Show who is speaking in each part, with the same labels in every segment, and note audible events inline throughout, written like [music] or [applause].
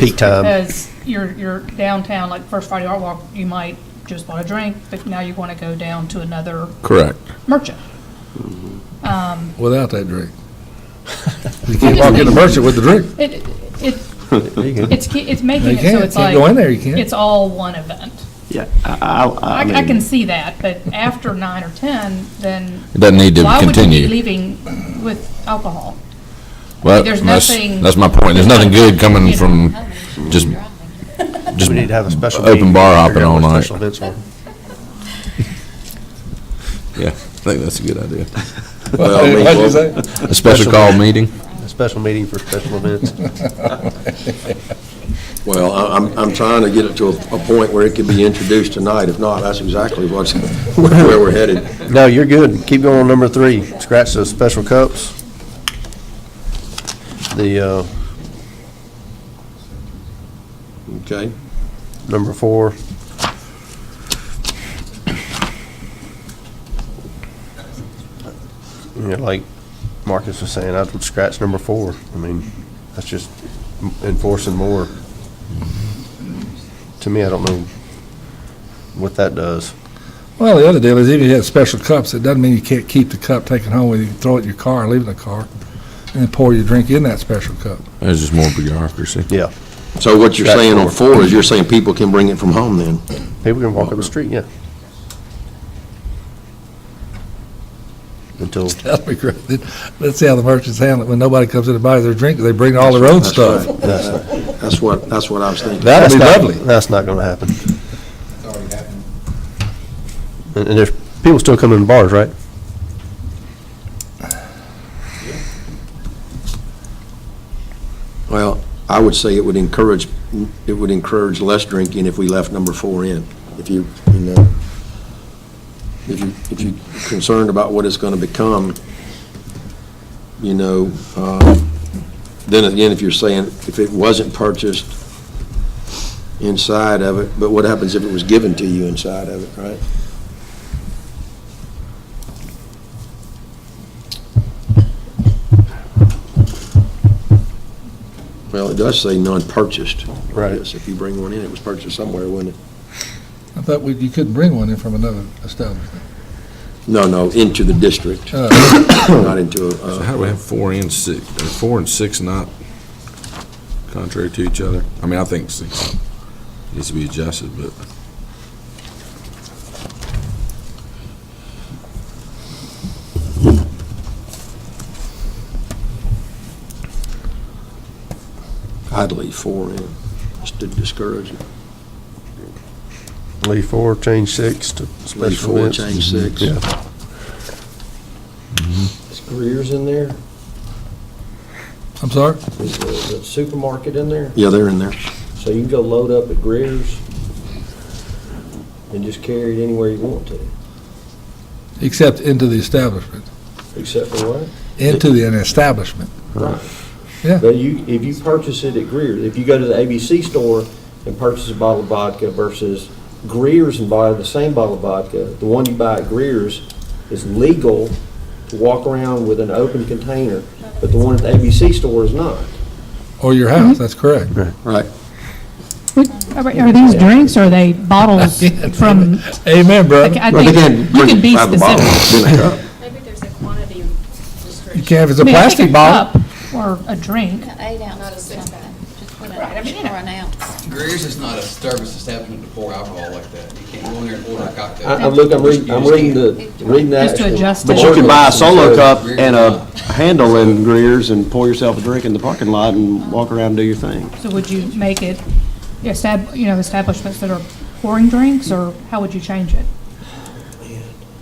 Speaker 1: Peak time.
Speaker 2: Because you're, you're downtown, like First Friday Art Walk, you might just want a drink, but now you want to go down to another
Speaker 3: Correct.
Speaker 2: merchant.
Speaker 4: Mm-hmm.
Speaker 2: Um,
Speaker 3: Without that
Speaker 2: [laughs]
Speaker 3: drink. You can't walk in the merchant with the drink.
Speaker 2: It, it, it's, ki- it's making
Speaker 3: You
Speaker 2: it so
Speaker 3: can't,
Speaker 2: it's
Speaker 3: can't go
Speaker 2: like,
Speaker 3: in there, you can't.
Speaker 2: it's all one event.
Speaker 4: Yeah, I, I,
Speaker 2: I,
Speaker 4: I mean.
Speaker 2: I can see that, but after nine or 10, then
Speaker 5: It doesn't need to
Speaker 2: why would you be
Speaker 5: continue.
Speaker 2: leaving with alcohol?
Speaker 5: Well,
Speaker 2: there's
Speaker 5: that's-
Speaker 2: nothing-
Speaker 5: That's my point. There's nothing good coming
Speaker 2: You know.
Speaker 5: from just, just,
Speaker 1: We need to have a special.
Speaker 5: Open
Speaker 1: meeting
Speaker 5: bar
Speaker 1: to
Speaker 5: hopping
Speaker 1: figure out
Speaker 5: all
Speaker 1: what
Speaker 5: night.
Speaker 1: special events are.
Speaker 5: yeah, I think that's a good idea.
Speaker 3: What
Speaker 5: Well,
Speaker 3: did you say?
Speaker 5: A special call meeting?
Speaker 1: A special meeting for special
Speaker 5: [laughs]
Speaker 1: events.
Speaker 6: Well, I- I'm, I'm trying to get it to a, a point where it can be introduced tonight. If not, that's exactly what's, [laughs] where we're headed.
Speaker 1: No, you're good. Keep going on number three. Scratch those special cups. The, uh,
Speaker 6: Okay?
Speaker 1: number four. You know, like Marcus was saying, I would scratch number four. I mean, that's just enforcing more. To me, I don't know what that does.
Speaker 3: Well, the other deal is even if you had special cups, it doesn't mean you can't keep the cup, take it home with you, throw it in your car, leave it in the car, and then pour your drink in that special cup. [laughs]
Speaker 5: There's just more bureaucracy.
Speaker 1: Yeah.
Speaker 6: So what you're saying on four is you're saying people can bring it from home then?
Speaker 1: People can walk up the street, yeah. Until,
Speaker 3: That'd be great. Let's see how the merchants handle it. When nobody comes in and buys their drink, they bring all their own
Speaker 6: That's
Speaker 3: stuff.
Speaker 6: right.
Speaker 1: that's not,
Speaker 6: That's what, that's what I was thinking.
Speaker 3: That'd
Speaker 1: that's
Speaker 3: be
Speaker 1: not,
Speaker 3: lovely.
Speaker 1: that's not gonna happen.
Speaker 7: It's already happened.
Speaker 1: And, and there's, people still come in bars, right?
Speaker 6: Well, I would say it would encourage, it would encourage less drinking if we left number four in. If you, you know, if you, if you're concerned about what it's gonna become, you know, uh, then again, if you're saying, if it wasn't purchased inside of it, but what happens if it was given to you inside of it, right? Well, it does say non-purchased.
Speaker 1: Right.
Speaker 6: Yes, If you bring one in, it was purchased somewhere, wasn't it?
Speaker 3: I thought we- you couldn't bring one in from another establishment.
Speaker 6: No, no, into the district,
Speaker 3: Uh,
Speaker 6: not into a.
Speaker 5: So how do we have four and six, are four and six not contrary to each other? I mean, I think six needs to be adjusted, but
Speaker 6: I'd leave four in, just to discourage it.
Speaker 1: Leave four, change six to
Speaker 6: Leave
Speaker 1: special
Speaker 6: four,
Speaker 1: events.
Speaker 6: change six.
Speaker 1: Yeah.
Speaker 4: Is Greer's in there?
Speaker 3: I'm sorry?
Speaker 4: Is the the supermarket in there?
Speaker 6: Yeah, they're in there.
Speaker 4: So you can go load up at Greer's and just carry it anywhere you want to,
Speaker 3: Except into the establishment,
Speaker 4: except for what?
Speaker 3: into the, an establishment.
Speaker 4: Right.
Speaker 3: Yeah.
Speaker 4: But you, if you purchase it at Greer's, if you go to the ABC store and purchase a bottle of vodka versus Greer's and buy the same bottle of vodka, the one you buy at Greer's is legal to walk around with an open container, but the one at the ABC store is not.
Speaker 3: Or your house, that's correct.
Speaker 6: Right.
Speaker 2: Are these drinks, or are they
Speaker 4: [laughs]
Speaker 2: bottles
Speaker 3: Uh,
Speaker 2: from,
Speaker 3: Amen, brother.
Speaker 2: I
Speaker 6: But again,
Speaker 2: think, you
Speaker 6: bring
Speaker 2: can
Speaker 6: it
Speaker 2: be
Speaker 6: by the bottle,
Speaker 2: specific.
Speaker 6: then a cup.
Speaker 8: Maybe there's a quantity restriction.
Speaker 3: You can't, if it's
Speaker 2: I
Speaker 3: a
Speaker 2: mean, I think
Speaker 3: plastic bottle.
Speaker 2: cup Or a drink,
Speaker 8: Eight ounces, or something, just put
Speaker 2: Right, I mean, you
Speaker 8: it
Speaker 2: know.
Speaker 8: or an ounce.
Speaker 7: Greer's is not a service establishment to pour alcohol like that. You can't go in there and order a cocktail.
Speaker 4: I, I'm look, I'm reading, I'm reading the, reading the
Speaker 2: Just to
Speaker 4: actual.
Speaker 2: adjust it.
Speaker 4: the
Speaker 2: But you
Speaker 4: ordinance, so-
Speaker 7: and a
Speaker 4: uh,
Speaker 6: handle in Greer's and pour yourself a drink in the parking lot and walk around and do your thing.
Speaker 2: so would you make it, estab, you know, establishments that are pouring drinks, or how would you change it?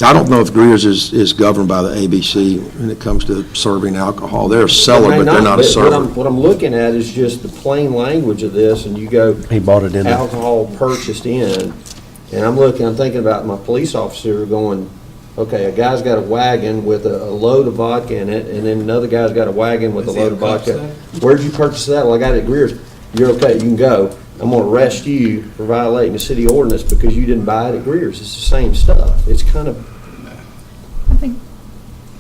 Speaker 6: I don't know if Greer's is, is governed by the ABC when it comes to serving alcohol. They're a seller,
Speaker 4: It may
Speaker 6: but they're not a
Speaker 4: What I'm,
Speaker 6: server.
Speaker 4: what I'm looking at is just the plain language of this, and you go.
Speaker 1: He bought it in there.
Speaker 4: Alcohol purchased in, and I'm looking, I'm thinking about my police officer going, okay, a guy's got a wagon with a a load of vodka in it, and then another guy's got a wagon with a
Speaker 7: Does he
Speaker 4: load of
Speaker 7: have cups
Speaker 4: vodka. Where'd you purchase that? Well, I got it at Greer's. You're okay, you can go. I'm gonna arrest you for violating the city ordinance because you didn't buy it at Greer's. It's the same stuff. It's kind of
Speaker 2: I think,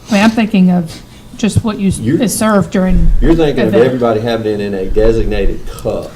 Speaker 2: I mean, I'm thinking of just what you,
Speaker 4: You-
Speaker 2: is served during.
Speaker 4: You're thinking of
Speaker 2: event.
Speaker 4: everybody having it in a designated cup.